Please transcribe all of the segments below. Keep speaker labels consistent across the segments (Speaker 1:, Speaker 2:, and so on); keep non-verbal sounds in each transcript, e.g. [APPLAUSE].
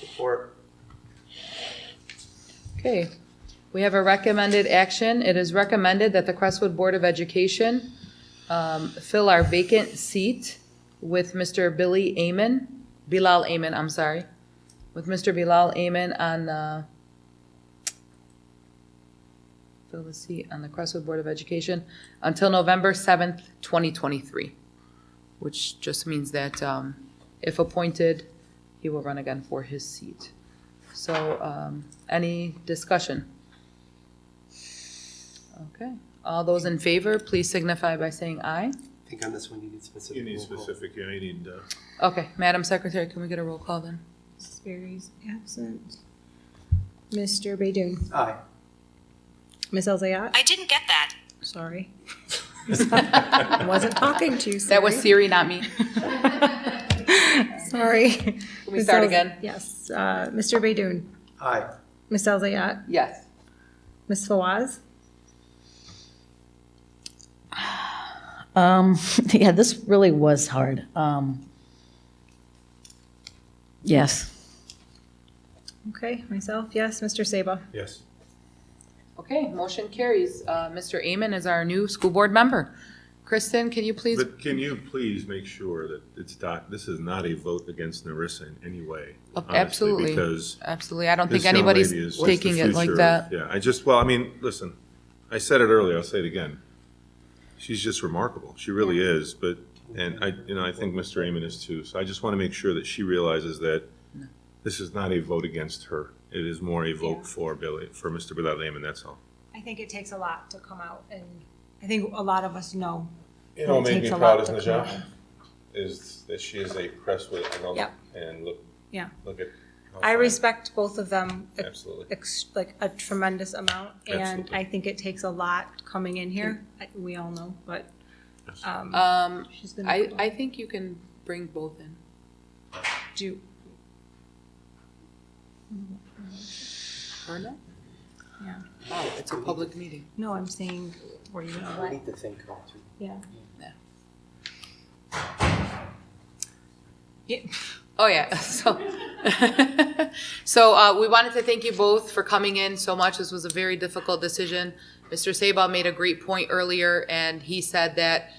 Speaker 1: Support.
Speaker 2: Okay, we have a recommended action. It is recommended that the Crestwood Board of Education um, fill our vacant seat with Mr. Billy Amen, Bilal Amen, I'm sorry, with Mr. Bilal Amen on uh, the, fill the seat on the Crestwood Board of Education until November 7th, 2023, which just means that um, if appointed, he will run again for his seat. So, um, any discussion? Okay, all those in favor, please signify by saying aye.
Speaker 1: I think on this one you need specific.
Speaker 3: You need
Speaker 1: roll call.
Speaker 3: specific, yeah, you need, uh,
Speaker 2: Okay, Madam Secretary, can we get a roll call then?
Speaker 4: Mrs. Berry's absent. Mr. Baidoon.
Speaker 1: Aye.
Speaker 4: Miss Elzayat?
Speaker 5: I didn't get that.
Speaker 4: Sorry. [LAUGHS] I wasn't talking to you,
Speaker 2: That was Siri, not me.
Speaker 4: Sorry.
Speaker 2: Can we
Speaker 4: Miss
Speaker 2: start
Speaker 4: Elz-
Speaker 2: again?
Speaker 4: Yes. Uh, Mr. Baidoon.
Speaker 1: Aye.
Speaker 4: Miss Elzayat?
Speaker 2: Yes.
Speaker 4: Miss Fawaz?
Speaker 6: Um, [LAUGHS] yeah, this really was hard. Um, yes.
Speaker 4: Okay, myself, yes. Mr. Saba?
Speaker 3: yes,
Speaker 2: Okay, motion carries. Uh, Mr. Amen is our new school board member. Kristen, can you please?
Speaker 3: but can you please make sure that it's not, this is not a vote against Narissa in any way?
Speaker 2: Oh,
Speaker 3: honestly,
Speaker 2: absolutely.
Speaker 3: Because
Speaker 2: Absolutely, I don't
Speaker 3: this
Speaker 2: think
Speaker 3: young
Speaker 2: anybody's
Speaker 3: lady is.
Speaker 2: taking it like that.
Speaker 3: Yeah, I just, well, I mean, listen, I said it earlier, I'll say it again. She's just remarkable, she really is, but, and I, you know, I think Mr. Amon is too, so I just want to make sure that she realizes that this is not a vote against her, it is more a vote for Billy, for Mr. Bilal Amon, that's all.
Speaker 7: I think it takes a lot to come out, and I think a lot of us know.
Speaker 3: You know what made
Speaker 7: takes
Speaker 3: me
Speaker 7: a
Speaker 3: proud
Speaker 7: lot
Speaker 3: as
Speaker 7: to come
Speaker 3: Najah? Is that she is a Crestwood alum
Speaker 7: Yep.
Speaker 3: and look,
Speaker 7: Yeah.
Speaker 3: look at. how
Speaker 7: I
Speaker 3: far-
Speaker 7: respect both of them ex-
Speaker 3: Absolutely.
Speaker 7: ex- like a tremendous amount, and
Speaker 3: Absolutely.
Speaker 7: I think it takes a lot coming in here. I- We all know, but um,
Speaker 2: Um,
Speaker 7: she's gonna
Speaker 2: I, I think you can bring both in.
Speaker 7: do.
Speaker 2: Or not?
Speaker 7: Yeah.
Speaker 2: Wow, it's a public meeting.
Speaker 7: No, I'm saying were you gonna
Speaker 1: I
Speaker 7: let?
Speaker 1: need to think about it.
Speaker 7: Yeah.
Speaker 2: Oh, yeah, [LAUGHS] so, so, uh, we wanted to thank you both for coming in so much, this was a very difficult decision. Mr. Sabah made a great point earlier, and he said that,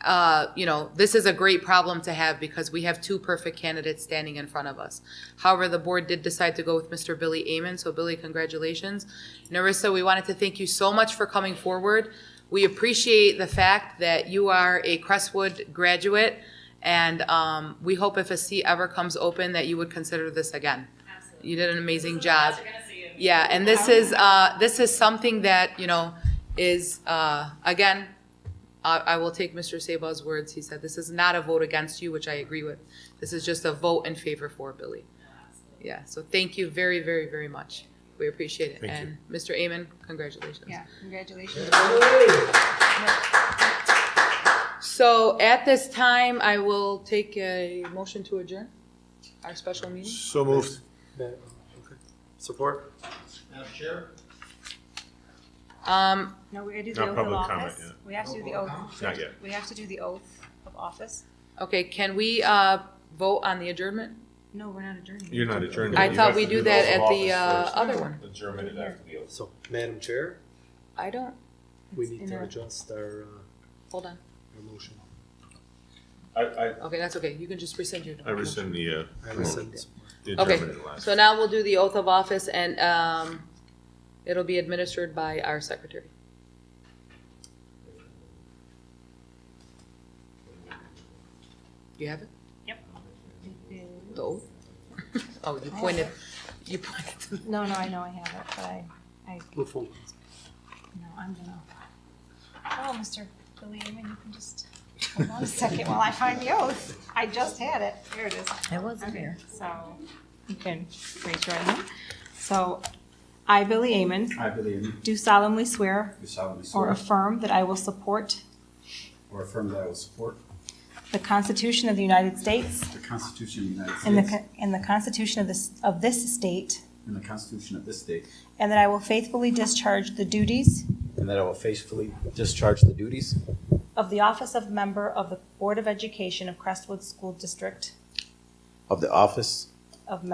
Speaker 2: uh, you know, this is a great problem to have because we have two perfect candidates standing in front of us. However, the board did decide to go with Mr. Billy Amen, so Billy, congratulations. Narissa, we wanted to thank you so much for coming forward. We appreciate the fact that you are a Crestwood graduate, and um, we hope if a seat ever comes open that you would consider this again. You did an amazing job. Yeah, and this is, uh, this is something that, you know, is, uh, again, I, I will take Mr. Sabah's words. He said, this is not a vote against you, which I agree with. This is just a vote in favor for Billy. Yeah, so thank you very, very, very much. We appreciate it.
Speaker 3: Thank you.
Speaker 2: And Mr. Amen, congratulations.
Speaker 7: Yeah, congratulations.
Speaker 2: So at this time, I will take a motion to adjourn our special meeting.
Speaker 3: So moved.
Speaker 1: Support?
Speaker 2: Um,
Speaker 7: No, we gotta
Speaker 3: No
Speaker 7: do the oath of
Speaker 3: public comment,
Speaker 7: office.
Speaker 3: yeah.
Speaker 7: We have to do the oath.
Speaker 3: Not yet.
Speaker 7: We have to do the oath of office.
Speaker 2: okay, can we, uh, vote on the adjournment?
Speaker 7: No, we're not adjourning.
Speaker 3: You're not adjourned.
Speaker 2: I
Speaker 3: You
Speaker 2: thought
Speaker 3: have
Speaker 2: we
Speaker 3: to
Speaker 2: do
Speaker 3: the oath
Speaker 2: that
Speaker 3: of
Speaker 2: at the,
Speaker 3: office
Speaker 2: uh, other
Speaker 3: first.
Speaker 2: one.
Speaker 3: Adjourn it after the oath.
Speaker 1: So, Madam Chair,
Speaker 2: I don't,
Speaker 1: we
Speaker 7: It's
Speaker 1: need
Speaker 7: in
Speaker 1: to
Speaker 7: our-
Speaker 1: adjust our, uh,
Speaker 2: hold on.
Speaker 1: our motion.
Speaker 3: I, I,
Speaker 2: Okay, that's okay. You can just rescind your.
Speaker 3: I rescind the, uh,
Speaker 1: I
Speaker 3: the
Speaker 1: rescind support.
Speaker 2: Okay,
Speaker 3: adjournment at last.
Speaker 2: so now we'll do the oath of office and, um, it'll be administered by our secretary. You have it? Yep. The oath? [LAUGHS] Oh, you pointed, you pointed. to me.
Speaker 7: No, no, I know I have it, but I, I
Speaker 1: We'll phone.
Speaker 7: No, I'm gonna. Oh, Mr. Billy Amen, you can just, hold on a second while I find the oath. I just had it. Here it is.
Speaker 6: I wasn't here.
Speaker 7: So you can raise your right hand. So I, Billy Amen,
Speaker 8: I, Billy Amin,
Speaker 7: do solemnly swear
Speaker 8: do solemnly
Speaker 7: or
Speaker 8: swear
Speaker 7: affirm that I will support
Speaker 8: or affirm that I will support
Speaker 7: the Constitution of the United States
Speaker 8: the Constitution of the United
Speaker 7: and the,
Speaker 8: States
Speaker 7: co- and the Constitution of this, of this state,
Speaker 8: and the Constitution of this state,
Speaker 7: and that I will faithfully discharge the duties
Speaker 8: and that I will faithfully discharge the duties
Speaker 7: of the office of member of the Board of Education of Crestwood School District
Speaker 8: of the office